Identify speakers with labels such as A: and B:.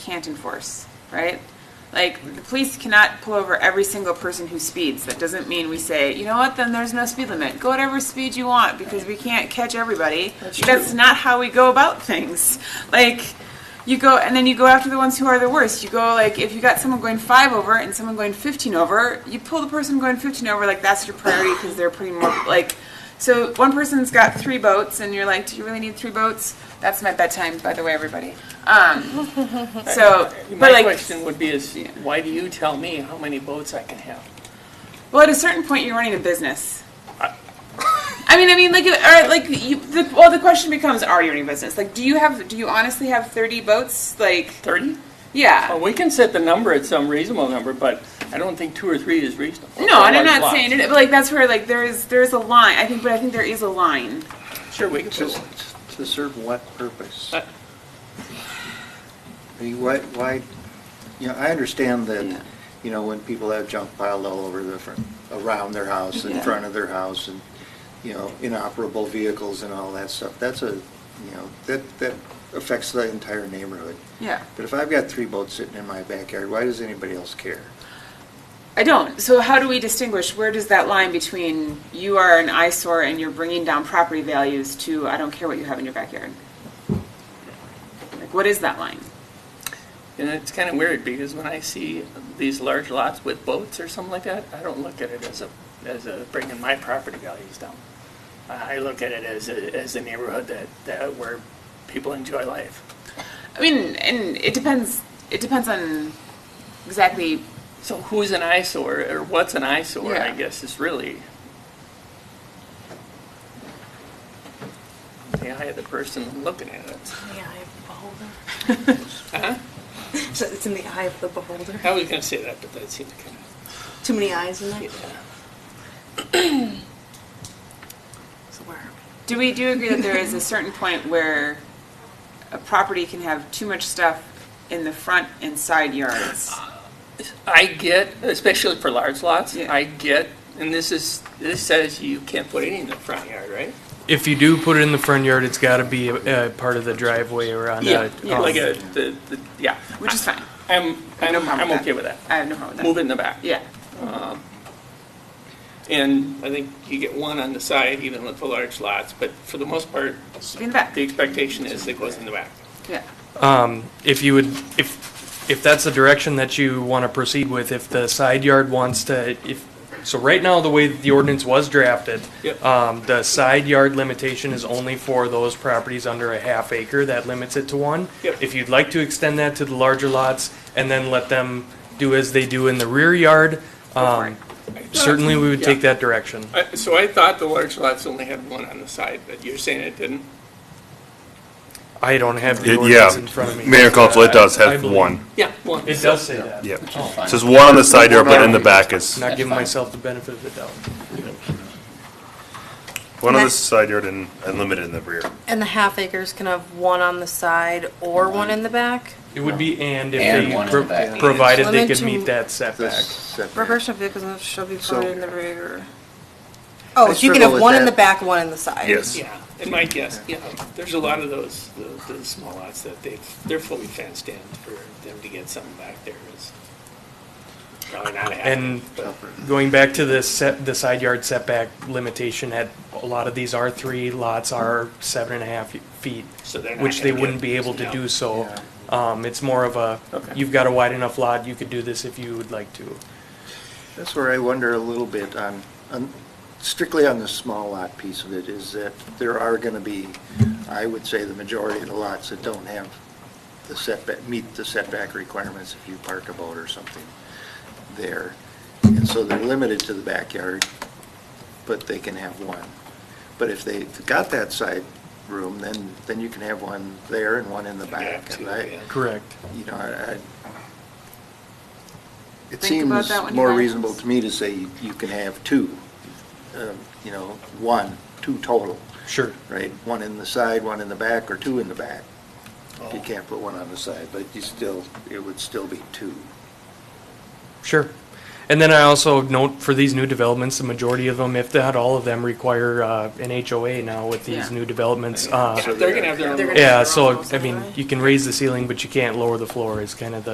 A: can't enforce, right? Like, the police cannot pull over every single person who speeds. That doesn't mean we say, you know what, then there's no speed limit. Go whatever speed you want because we can't catch everybody. That's, not how we go about things. Like, you go, and then you go after the ones who are the worst. You go, like, if you got someone going five over and someone going 15 over, you pull the person going 15 over, like, that's your priority because they're putting more, like, so one person's got three boats and you're like, do you really need three boats? That's my bedtime, by the way, everybody. Um, so, but
B: My
A: like,
B: question would be is, why do you tell me how many boats I can have?
A: Well, at a certain point, you're running a business. I mean, I mean, like, uh, or like, you, the, well, the question becomes: Are you running a business? Like, do you have? Do you honestly have 30 boats? Like,
B: 30?
A: yeah.
B: Well, we can set the number at some reasonable number, but I don't think two or three is reasonable.
A: No, and I'm
B: Large
A: not
B: lots.
A: saying it, but like that's where like there is there is a line. I think, but I think there is a line.
B: Sure, we can.
C: To to serve what purpose? I mean, Why, why, you know, I understand
A: Yeah.
C: that, you know, when people have junk piled all over the front, around their house, in
A: Yeah.
C: front of their house, and, you know, inoperable vehicles and all that stuff, that's a, you know, that, that affects the entire neighborhood.
A: Yeah.
C: But if I've got three boats sitting in my backyard, why does anybody else care?
A: I don't. So how do we distinguish? Where does that line between you are an eyesore and you're bringing down property values to I don't care what you have in your backyard? Like, what is that line?
B: And it's kind of weird because when I see these large lots with boats or something like that, I don't look at it as a, as a bringing my property values down. I I look at it as a, as a neighborhood that, that where people enjoy life.
A: I mean, and it depends. It depends on exactly.
B: So who's an eyesore or what's an eyesore, I
A: Yeah.
B: guess, is really the eye of the person looking at it.
D: In the eye of the beholder.
B: Huh?
D: So it's in the eye of the beholder.
B: I was going to say that, but that seemed kind of.
D: Too many eyes in there.
B: Yeah.
D: So where are
A: Do we do agree that there is a certain point where a property can have too much stuff in the front and side yards?
B: I get, especially for large lots,
A: Yeah.
B: I get, and this is, this says you can't put any in the front yard, right?
E: If you do put it in the front yard, it's got to be a, a part of the driveway or on a.
A: yeah.
E: um,
B: Like a, the, the, yeah.
A: Which is fine.
B: I'm, I'm,
A: problem with
B: I'm
A: that.
B: okay with that.
A: I have no problem with that.
B: Move it in the back.
A: Yeah.
B: And I think you get one on the side, even with the large lots, but for the most part,
A: Should be in the back.
B: the expectation is it goes in the back.
A: Yeah.
E: If you would, if, if that's the direction that you want to proceed with, if the side yard wants to, if, so right now, the way that the ordinance was drafted,
B: Yep.
E: um, the side yard limitation is only for those properties under a half acre, that limits it to one.
B: Yep.
E: If you'd like to extend that to the larger lots and then let them do as they do in the rear yard,
A: for
E: um, certainly we would take that direction.
B: I- So I thought the large lots only had one on the side, but you're saying it didn't?
E: I don't have the
F: It-
E: ordinance in front of
F: Yeah,
E: me.
F: Mayor and Council, it does
E: I
F: have
E: believe-
F: one,
B: Yeah, one.
E: It does say that.
F: yeah. It says one on the side yard, but in the back is,
E: Not giving myself the benefit of the doubt.
F: one on the side yard and unlimited in the rear.
D: And the half acres can have one on the side or one in the back.
E: It would be and if
G: And
E: they,
G: one in
E: pro-
G: the back.
E: provided they
D: Limit
E: could
D: to-
E: meet that
C: That's
E: setback.
C: separate.
D: Reversion of vehicles shall be
C: So-
D: provided in the rear. Oh,
C: I
D: so you can have
C: struggle with
D: one in
C: that.
D: the back, one in the side.
F: Yes.
B: Yeah, and my guess, yeah, there's a lot of those, the- the small lots that they've, they're fully fenced in for them to get something back there is probably not happening.
E: And going back to the set, the side yard setback limitation at a lot of these R three lots are seven and a half feet,
B: So they're not
E: which they
B: gonna get-
E: wouldn't be able to
B: no.
E: do so. Um, it's more of a,
B: Okay.
E: you've got a wide enough lot, you could do this if you would like to.
C: That's where I wonder a little bit on, on- strictly on the small lot piece of it, is that there are going to be, I would say, the majority of the lots that don't have the setback, meet the setback requirements if you park a boat or something there. And so they're limited to the backyard, but they can have one. But if they've got that side room, then, then you can have one there and one in the
B: Yeah,
C: back.
B: too,
C: And I,
B: yeah.
E: Correct.
C: you know, I, I- it
A: Think about
C: seems
A: that when you
C: more
A: buy
C: reasonable
A: those.
C: to me to say you you can have two, um, you know, one, two total,
E: Sure.
C: right? One in the side, one in the back, or two in the back. You can't put one on the side, but you still, it would still be two.
E: Sure. And then I also note for these new developments, the majority of them, if not all of them, require uh, an HOA now with
A: Yeah.
E: these new developments. Uh,
B: They're gonna have their own.
D: They're gonna-
E: Yeah, so, I mean, you can raise the ceiling, but you can't lower the floor is kind of the